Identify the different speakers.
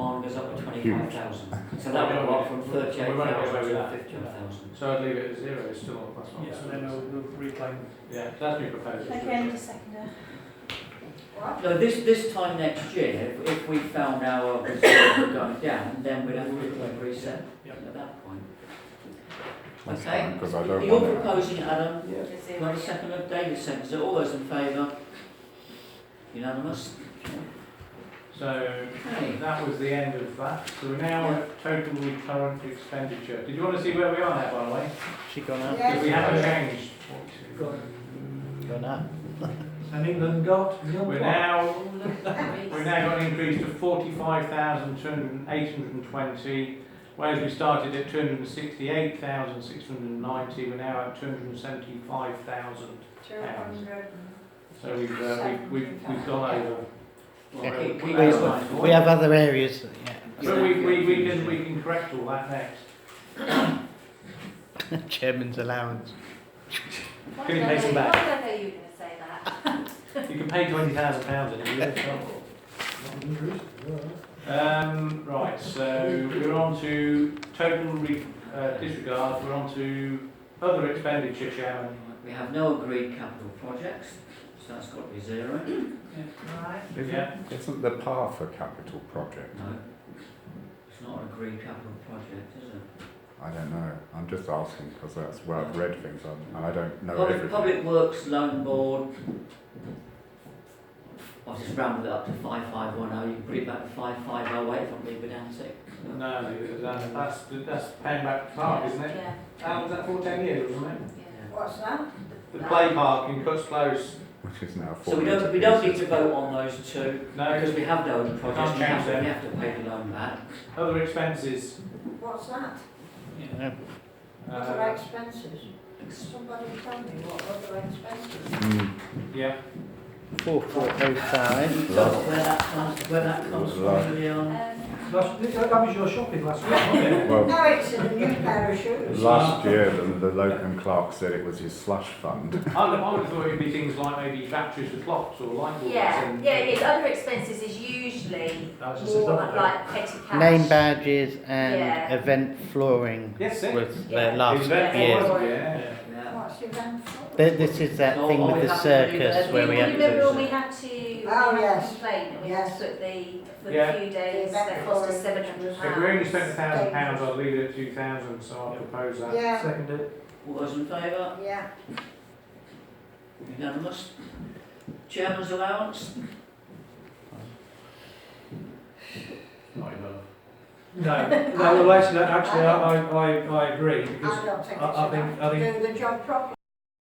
Speaker 1: twenty-five thousand. So that would go up from thirty-eight thousand to fifty-one thousand.
Speaker 2: So I'd leave it at zero, it's still not plus one.
Speaker 3: Yeah, then we'll, we'll reclaim.
Speaker 2: Yeah, that's my proposal.
Speaker 4: Okay, just second it.
Speaker 1: No, this, this time next year, if, if we found our reserve had gone down, then we'd have to increase it
Speaker 3: Yeah.
Speaker 1: at that point.
Speaker 5: That's
Speaker 1: Okay.
Speaker 5: fine, because I don't
Speaker 1: You're
Speaker 5: want it.
Speaker 1: proposing, it, Adam,
Speaker 2: Yeah.
Speaker 4: Just
Speaker 1: do I have a
Speaker 4: zero.
Speaker 1: second of David seconds, all those in favour? Unanimous?
Speaker 2: So
Speaker 1: Okay.
Speaker 2: that was the end of that. So we're now at total recurrent expenditure. Did you want to see where we are now, by the way?
Speaker 6: She gone out.
Speaker 2: Because we
Speaker 4: Yes.
Speaker 2: haven't changed.
Speaker 3: Got
Speaker 6: Gone out.
Speaker 3: And England got nil
Speaker 2: We're
Speaker 3: one.
Speaker 2: now We've
Speaker 4: Three.
Speaker 2: now got an increase to forty-five thousand, two hundred and eight hundred and twenty, whereas we started at two hundred and sixty-eight thousand, six hundred and ninety, we're now at two hundred and seventy-five thousand.
Speaker 4: Two hundred and-
Speaker 2: So we've, uh, we've, we've, we've gone over.
Speaker 1: Well, keep- keep
Speaker 2: Yeah.
Speaker 1: in mind-
Speaker 6: We have other areas,
Speaker 2: But we, we, we can, we can correct all that next.
Speaker 6: yeah. Chairman's allowance.
Speaker 4: Why
Speaker 2: Can you
Speaker 4: did I
Speaker 2: pay some
Speaker 4: know-
Speaker 2: back?
Speaker 4: Why did I know you were gonna say that?
Speaker 2: You can pay twenty thousand pounds in a year. can't you? Um, right, so we're on to total re, uh, disregard, we're on to other expenditure, Chairman.
Speaker 1: We have no agreed capital projects, so that's got to be zero.
Speaker 4: Right.
Speaker 2: Yeah.
Speaker 5: Isn't, isn't the path a capital project?
Speaker 1: No, it's not an agreed capital project, is it?
Speaker 5: I don't know. I'm just asking because that's where I've read things on, and I don't know
Speaker 1: Public,
Speaker 5: everything.
Speaker 1: Public Works Loan Board, I'll just round it up to five five one oh, you can put it back to five five oh eight if I'm being pedantic.
Speaker 2: No, that, that's, that's paying back park, isn't it?
Speaker 4: Yeah,
Speaker 2: How was that for ten years, wasn't it?
Speaker 4: yeah.
Speaker 7: What's that?
Speaker 2: The play park in Cuts Close.
Speaker 5: Which is
Speaker 1: So
Speaker 5: now falling
Speaker 1: we
Speaker 5: into
Speaker 1: don't, we don't need
Speaker 5: pieces.
Speaker 1: to vote on those two, because
Speaker 2: No,
Speaker 1: we have those projects, we
Speaker 2: Can't
Speaker 1: have,
Speaker 2: change them.
Speaker 1: we have to pay the loan back.
Speaker 2: other expenses.
Speaker 7: What's that?
Speaker 6: Yeah.
Speaker 7: What are
Speaker 2: Uh,
Speaker 7: expenses? Somebody tell me what other expenses?
Speaker 5: Mm,
Speaker 2: yeah,
Speaker 6: Four, four, oh,
Speaker 1: Can
Speaker 6: five.
Speaker 1: you tell us where that comes, where that comes from,
Speaker 5: Right.
Speaker 1: Leon?
Speaker 4: Um,
Speaker 3: That's, that was your shopping last week, wasn't it?
Speaker 5: Well,
Speaker 7: No, it's in a new pair of shoes.
Speaker 5: last year the, the locum clerk said it was his slush fund.
Speaker 2: I would, I would have thought it'd be things like maybe batteries for clocks or light bulbs.
Speaker 4: Yeah,
Speaker 2: and-
Speaker 4: yeah, it's other expenses is usually
Speaker 3: That was just a
Speaker 4: more
Speaker 3: double
Speaker 4: like petty cash.
Speaker 6: Name badges
Speaker 4: Yeah.
Speaker 6: and event flooring
Speaker 2: Yes, it.
Speaker 6: was the
Speaker 4: Yeah.
Speaker 6: last
Speaker 2: Event
Speaker 6: year.
Speaker 2: was, Yeah.
Speaker 1: Yeah.
Speaker 7: What's your van for?
Speaker 6: Th- This is that
Speaker 1: So
Speaker 6: thing
Speaker 1: all Oh, we
Speaker 6: with the
Speaker 1: have to do
Speaker 6: circus
Speaker 1: there-
Speaker 6: where we
Speaker 1: You
Speaker 6: had
Speaker 4: Remember when we
Speaker 6: to...
Speaker 4: had to, we
Speaker 7: Oh,
Speaker 4: had a
Speaker 7: yes.
Speaker 4: complaint, and we had to
Speaker 7: Yes.
Speaker 4: put the, for
Speaker 2: Yeah.
Speaker 4: the few days, that cost us seven hundred
Speaker 2: If we only
Speaker 4: pounds.
Speaker 2: spent a thousand pounds, I'd leave it at two thousand, so I'll propose that.
Speaker 7: Yeah,
Speaker 3: Seconded.
Speaker 1: All those in favour?
Speaker 7: yeah.
Speaker 1: Unanimous. Chairman's allowance?
Speaker 2: Not enough.
Speaker 3: No, no, well, actually, actually, I, I, I- I agree, because
Speaker 7: I don't think
Speaker 3: I- I
Speaker 7: it's
Speaker 3: think-
Speaker 7: enough
Speaker 3: I
Speaker 7: to do the job properly.